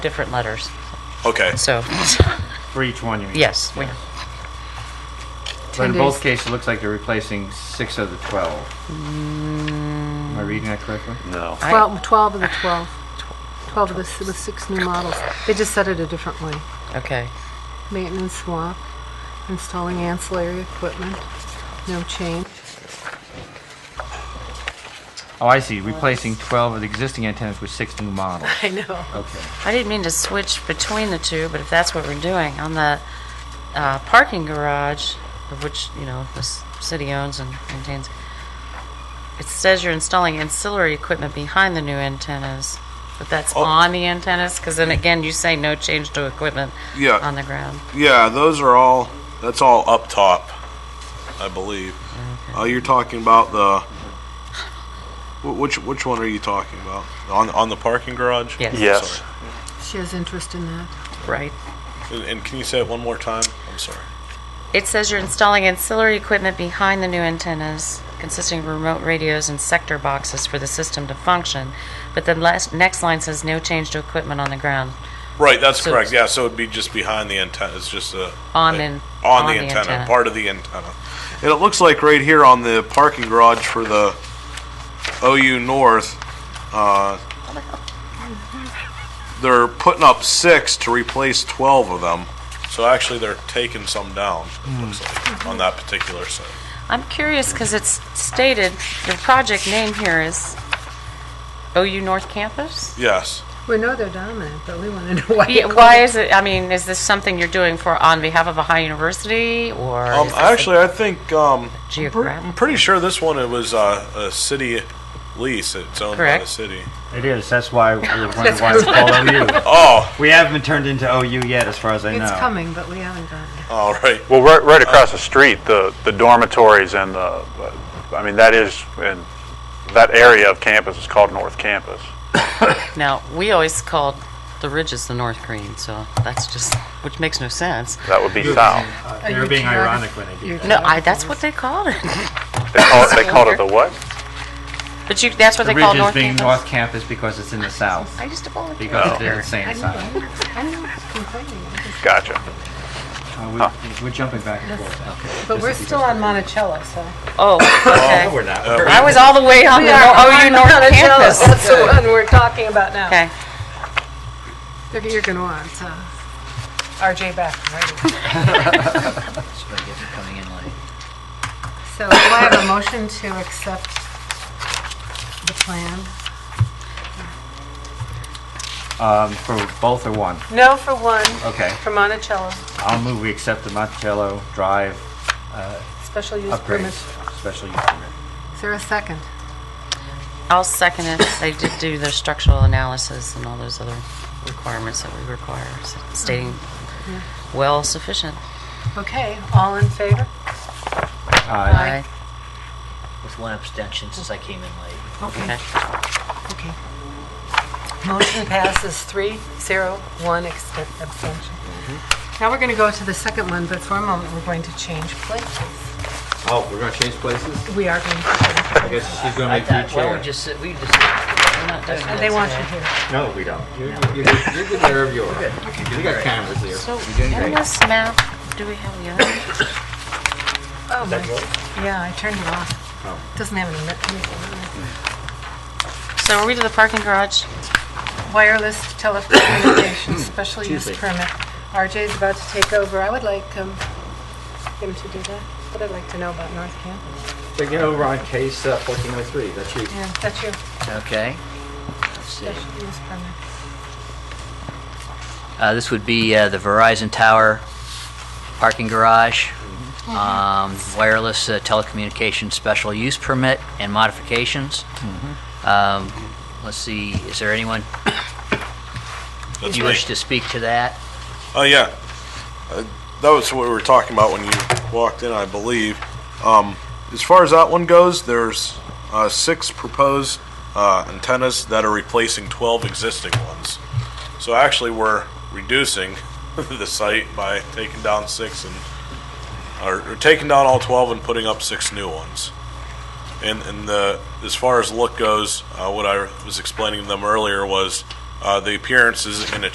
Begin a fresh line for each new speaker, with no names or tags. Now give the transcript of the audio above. different letters.
Okay.
So,
For each one, you mean?
yes, we,
But in
10
both
days.
cases, it looks like you're replacing six of the 12. Am I reading that correctly?
No.
12, 12 of the 12. 12 of the, s- with six new models. They just said it a different way.
okay.
Maintenance swap, installing ancillary equipment, no change.
Oh, I see. Replacing 12 of the existing antennas with six new models.
I know.
Okay.
I didn't mean to switch between the two, but if that's what we're doing, on the uh, parking garage, of which, you know, the s- city owns and maintains, it says you're installing ancillary equipment behind the new antennas, but that's
Oh.
on the antennas? Because then again, you say no change to equipment
Yeah.
on the ground.
Yeah, those are all. That's all up top, I believe. Uh, you're talking about the. wh- Which which one are you talking about? On on the parking garage?
Yes.
Yes.
She has interest in that.
Right.
And, and can you say it one more time? I'm sorry.
It says you're installing ancillary equipment behind the new antennas, consisting of remote radios and sector boxes for the system to function, but the last, next line says no change to equipment on the ground.
Right, that's
So
correct.
it's-
Yeah, so it'd be just behind the antenna. It's just a
On
a-
an-
on the antenna, part of the antenna. And it looks like right here on the parking garage for the OU North, uh, they're putting up six to replace twelve of them. So actually, they're taking some down. It looks like on that particular site.
I'm curious, because it's stated, your project name here is OU North Campus?
Yes.
We know they're dominant, but we want to know why.
Yeah, why is it, I mean, is this something you're doing for, on behalf of a high university, or
Um,
is this
actually, I think um, I'm
geographic?
pretty sure this one it was uh, a city lease. It's owned by the
Correct.
city.
It is. That's why we we're wondering why it's called OU.
Oh,
We haven't been turned into OU yet, as far as I know.
It's coming, but we haven't gotten it.
all right.
Well, right, right across the street, the, the dormitories and the, I mean, that is, and that area of campus is called North Campus.
Now, we always called the ridges the North Green, so that's just, which makes no sense.
That would be south.
They were Uh, being ironic when they did that.
No, I, that's what they called it.
They call it, they called it the what?
But you, that's what
The
they call
ridge is
North
being
Campus?
North Campus because it's in the south.
I used to volunteer
Because
out
they're
there.
the same side.
I'm not complaining.
Gotcha.
Uh, we- We're jumping back and forth. Okay.
But we're still on Monticello, so.
Oh,
No, we're
okay.
not.
I was all the way on the OU North Campus.
That's the one we're talking about now.
Okay,
They're- You're going to want uh, RJ back, right? So do I have a motion to accept the plan?
Um, For both or one?
No for one,
Okay.
for Monticello,
I'll move we accept the Monticello Drive
special use permit.
upgrades, special use permit.
Is there a second?
I'll second it. They did do their structural analysis and all those other requirements that we require, s- stating well sufficient.
Okay, all in favor?
Uh,
Aye.
with one abstention since I came in late.
Okay. Okay. Motion passes three, zero, one extent- abstention. Mm-hmm. Now we're going to go to the second one, but for a moment, we're going to change places.
Oh, we're gonna change places?
We are going to,
I guess she's gonna make you
Why don't we
chair.
just sit, we just sit.
We're not doing
they
this
want
today.
you here.
No, we don't. You're good wherever you are. We got cameras here.
So,
You're doing
on
great.
this map, do we have the other?
Oh, my, yeah, I turned it off. Doesn't have any, net- anything on
So are we to the parking garage?
it. Wireless telecommunications, special use
Tuesday.
permit. RJ's about to take over. I would like um, him to do that. What I'd like to know about North Campus.
So get over on case uh, 1403, that's you.
Yeah, that's your
Okay. Let's see.
special use permit.
Uh, this would be uh, the Verizon Tower parking garage,
Mm-hmm.
um, wireless uh, telecommunications special use permit and modifications. Um, let's see, is there anyone
That's
you
me.
wish to speak to that?
Oh, yeah. Uh, That was what we were talking about when you walked in, I believe. Um, As far as that one goes, there's uh, six proposed uh, antennas that are replacing 12 existing ones. So actually, we're reducing the site by taking down six and, or or taking down all 12 and putting up six new ones. And, and the, as far as look goes, uh, what I was explaining to them earlier was uh, the appearances in a